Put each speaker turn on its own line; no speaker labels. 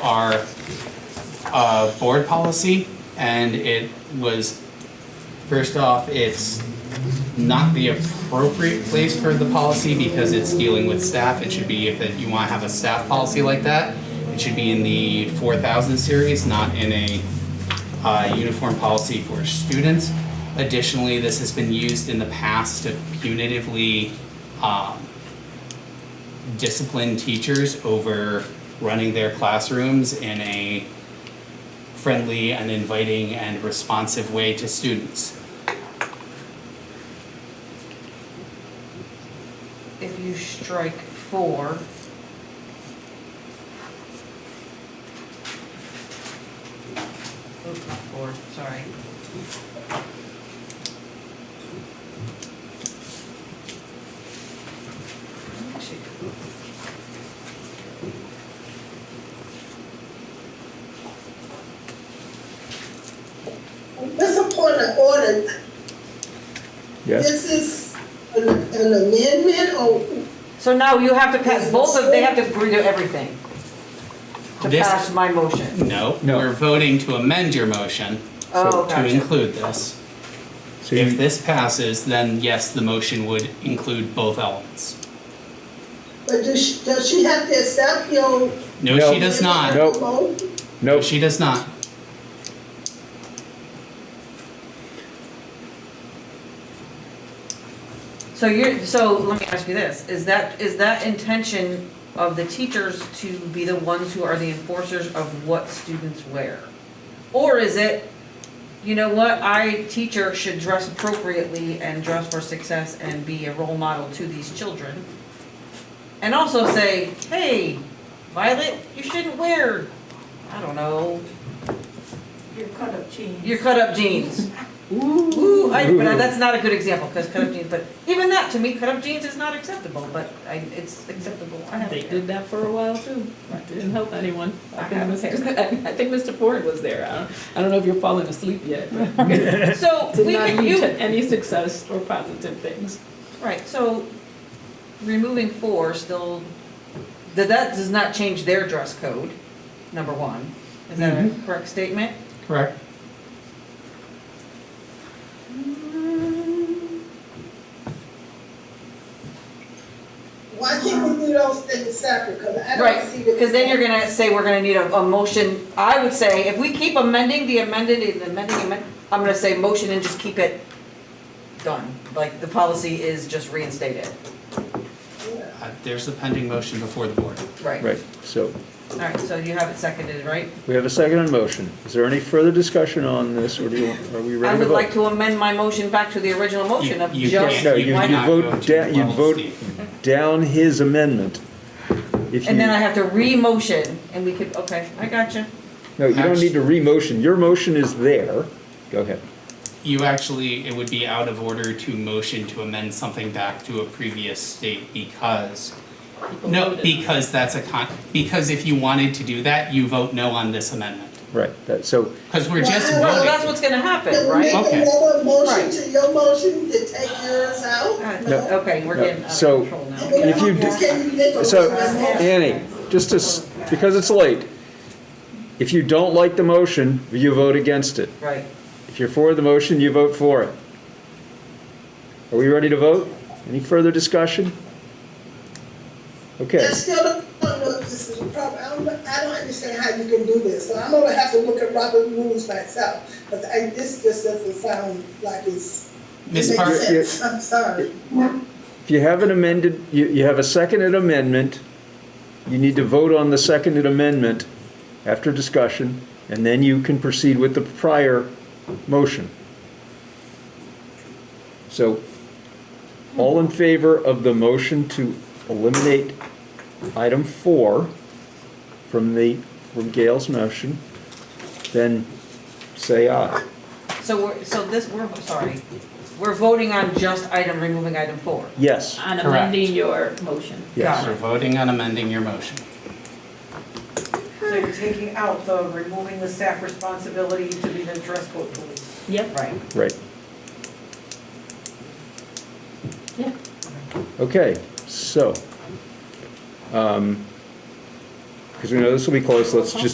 our uh, board policy, and it was, first off, it's not the appropriate place for the policy because it's dealing with staff. It should be, if it- you want to have a staff policy like that, it should be in the 4,000 series, not in a uh, uniform policy for students. Additionally, this has been used in the past to punitively um, discipline teachers over running their classrooms in a friendly and inviting and responsive way to students.
If you strike four. Oops, not four, sorry. Actually,
This is a point of order.
Yes,
This is an an amendment or
So now you have to pass both of, they have to agree to everything. To
This-
pass my motion.
No,
No.
we're voting to amend your motion
Oh,
to
gotcha.
include this.
so
If
you,
this passes, then yes, the motion would include both elements.
but does she, does she have to accept your?
No,
No.
she does not.
No.
Nope.
nope,
She does not.
So you're, so let me ask you this, is that, is that intention of the teachers to be the ones who are the enforcers of what students wear? Or is it, you know what, I, teacher, should dress appropriately and dress for success and be a role model to these children? And also say, hey, Violet, you shouldn't wear, I don't know,
Your cut up jeans.
your cut-up jeans. Ooh, I, but I- that's not a good example, because cut-up jeans, but even that, to me, cut-up jeans is not acceptable, but I, it's acceptable, I have
They
it.
did that for a while too. It Didn't help anyone. I
I
think,
have
Mr. I think Mr. Ford was there. I don't, I don't know if you're falling asleep yet. but
So,
Did
we
not
can,
lead
you,
to any success or positive things.
right, so, removing four still, that, that does not change their dress code, number one. Is that a correct statement?
Correct.
Why can't we do those things separate? Cause I
Right,
don't see the.
because then you're gonna say we're gonna need a, a motion, I would say, if we keep amending the amended, and amending, amend- I'm gonna say motion and just keep it done, like, the policy is just reinstated,
Uh, There's a pending motion before the board.
right?
right, so
Alright, so you have it seconded, right?
we have a second on motion. Is there any further discussion on this, or do you, are we
I
ready to
would
vote?
like to amend my motion back to the original motion of
You- you
just,
can't.
No, you,
Why
you
not go
vote,
to
da- you
level
vote
C?
down his amendment. If you,
and then I
no,
have to re-motion, and we could, okay, I gotcha.
you don't need to re-motion, your motion is there. Go ahead.
You actually, it would be out of order to motion to amend something back to a previous state because,
People
no,
voted on it.
because that's a con, because if you wanted to do that, you vote no on this amendment.
Right, that, so,
Because we're just
Well,
Well, that's
voting.
what's gonna happen,
Can we make
right?
Okay.
another motion
Right.
to your motion to take yours out?
Uh, Okay, we're
No,
getting out
so-
of control now.
If you do-
Can you make a
so,
motion?
Annie, just to, s- because it's late, if you don't like the motion, you vote against it.
Right.
If you're for the motion, you vote for it. Are we ready to vote? Any further discussion? Okay,
I still don't know if this is a problem. I don't, I don't understand how you can do this. So I'm gonna have to look at Robert rules myself, because I, this just doesn't sound like it's. it
Ms.
makes
Park,
Yeah.
sense. I'm sorry.
if you have an amended, you, you have a seconded amendment, you need to vote on the seconded amendment after discussion, and then you can proceed with the prior motion. So, all in favor of the motion to eliminate item four from the, from Gail's motion, then say aye.
So we're, so this, we're, sorry, we're voting on just item, removing item four.
Yes,
On
Correct.
amending your motion.
yes.
We're voting on amending your motion.
So you're taking out the, removing the staff responsibility to be the dress code police.
Yep.
Right.
Right.
Yeah.
Okay, so, um, because we know this will be close, let's just